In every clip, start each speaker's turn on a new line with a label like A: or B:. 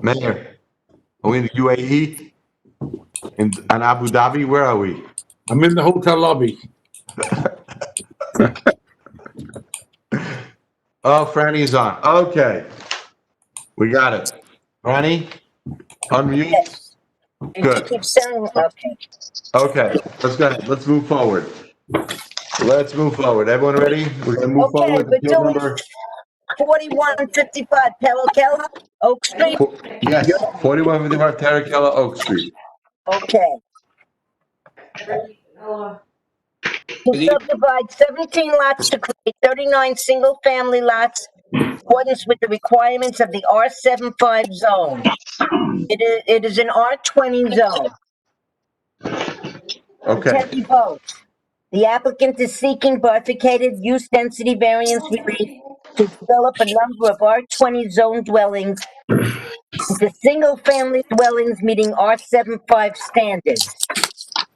A: Mayor, are we in the UAE? In, in Abu Dhabi, where are we?
B: I'm in the hotel lobby.
A: Oh, Franny's on. Okay. We got it. Franny, unmute.
C: And she
A: Good.
C: keeps saying, okay,
A: Okay, let's go. ahead. Let's move forward. Let's move forward. Everyone ready? We're gonna move
C: Okay,
A: forward.
C: we're
A: Appeal
C: doing-
A: number-
C: forty-one fifty-five Pellicella, Oak Street,
A: Yes, forty-one fifty-five Terracella Oak Street.
C: okay. To subdivide seventeen lots to create thirty-nine single-family lots in accordance with the requirements of the R 75 zone. It is, it is an R twenty zone.
A: Okay,
C: Kentucky vote. The applicant is seeking bifurcated use density variance relief to develop a number of R20 zone dwellings into single-family dwellings meeting R75 standards.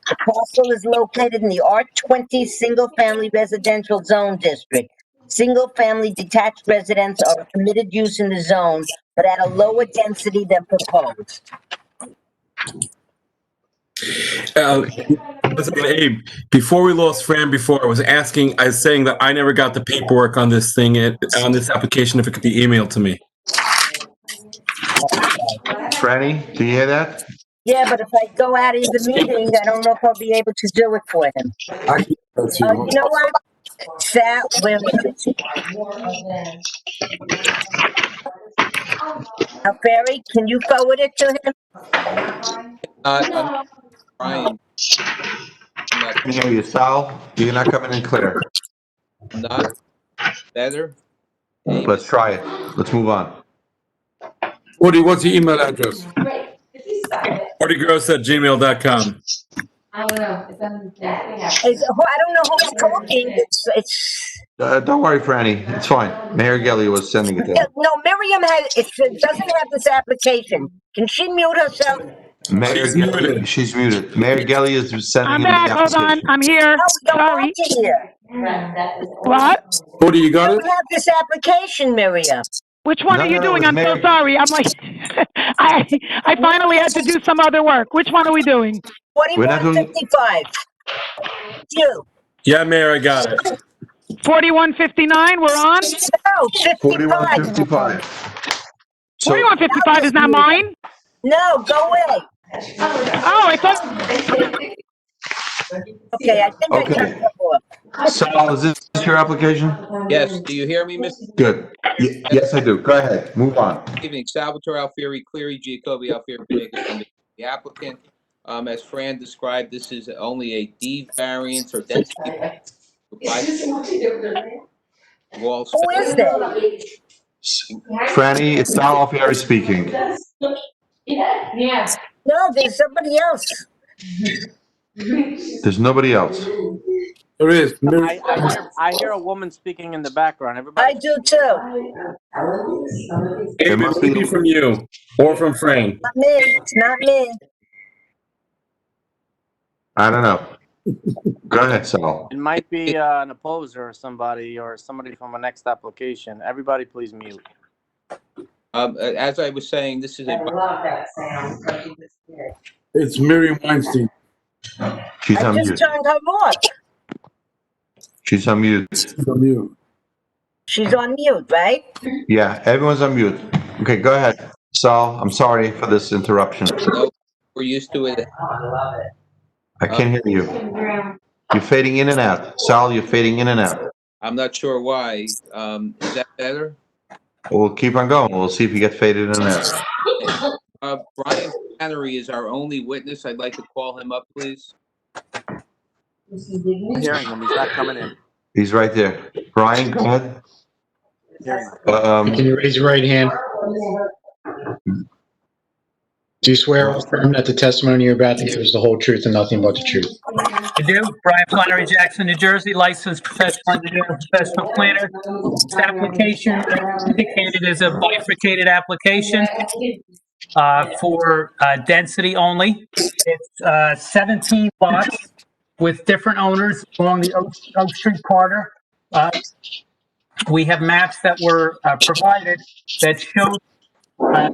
C: The parcel is located in the R20 Single Family Residential Zone District. Single-family detached residents are a permitted use in the zone, but at a lower density than proposed.
D: Uh, listen, Abe, before we lost Fran, before I was asking, I was saying that I never got the paperwork on this thing, it- on this application, if it could be emailed to me.
A: Franny, do you hear that?
C: Yeah, but if I go out of the meeting, I don't know if I'll be able to do it for him.
B: I can go to
C: Uh,
B: you.
C: you know what? Sal, where is it? Now, Barry, can you forward it to him?
E: Uh, I'm trying. I'm not-
A: Can you hear you, Sal? You're not coming in clear.
E: Not better.
A: Let's try it. Let's move on.
B: Woody, what's your email address?
F: Right, if you stop it,
D: Artiegross at gmail.com.
F: I don't know, it's on that, we have.
C: Is, who- I don't know who's talking, it's, it's,
A: Uh, don't worry, Franny. It's fine. Mayor Gelli was sending it
C: yeah,
A: there.
C: no, Miriam has, it doesn't have this application. Can she mute herself?
A: Mayor
D: She's
A: Gelli,
D: muted.
A: she's muted. Mayor Gelli is sending
G: I'm
A: it.
G: back. Hold on. I'm here.
C: No, we don't
G: Sorry.
C: want you here.
F: Run, that is.
G: What?
B: Woody, you got
C: We
B: it?
C: don't have this application, Miriam.
G: Which one
A: No,
G: are you
A: no, it
G: doing?
A: was
G: I'm so
A: Mary.
G: sorry. I'm like, I I finally had to do some other work. Which one are we doing?
A: We're not
C: Forty-one
A: doing-
C: fifty-five. You,
D: Yeah, Mayor, I got it.
G: 4159. We're on.
C: no,
A: Forty-one
C: fifty-five.
A: fifty-five. So,
G: 4155 is not mine.
C: No, go away.
G: Oh, I thought.
C: Okay, I think I
A: Okay.
C: turned it off.
A: Sal, is this is your application?
E: Yes, do you hear me, Mr.
A: Good. Ye- Yes, I do. Go ahead. Move on.
E: Evening? Salvatore Alfieri, Cleary, Giacobi Alfieri, Pacheco, the applicant. Um, as Fran described, this is only a D variance or density by wall.
C: Who is that?
A: Franny, it's Sal Alfieri speaking.
F: Yeah.
C: No, there's somebody else.
A: There's nobody else.
B: There is.
H: I, I, hear, I hear a woman speaking in the background.
C: I
H: Everybody,
C: do too.
F: uh,
D: Abe, it could be from you or from Fran.
C: Not me. It's not me.
A: I don't know. Go ahead, Sal.
H: it might be uh, an opposer or somebody or somebody from a next application. Everybody, please mute.
E: Um, a- as I was saying, this is a,
F: love that sound. but it's good.
B: It's Miriam Weinstein.
A: She's
C: I
A: on
C: just
A: mute.
C: turned her off.
A: She's on mute.
B: From you.
C: She's on mute, right?
A: Yeah, everyone's on mute. Okay, go ahead. Sal, I'm sorry for this interruption.
E: we're used to it.
F: Oh, I love it.
A: I can't hear you. You're fading in and out. Sal, you're fading in and out.
E: I'm not sure why. Um, is that better?
A: We'll keep on going. We'll see if you get faded in and out.
E: Uh, Brian Flannery is our only witness. I'd like to call him up, please.
H: I'm hearing him. He's not coming in.
A: He's right there. Brian, go ahead.
H: Hearing him.
A: Um,
I: Can you raise your right hand? Do you swear or affirm that the testimony you're about to give is the whole truth and nothing but the truth?
J: I do. Brian Flannery Jackson, New Jersey, licensed professional engineer, and professional planner. This application indicated is a bifurcated application uh, for uh, density only. It's uh, 17 lots with different owners along the Oak Oak Street corridor. Uh, We have maps that were uh, provided that show uh,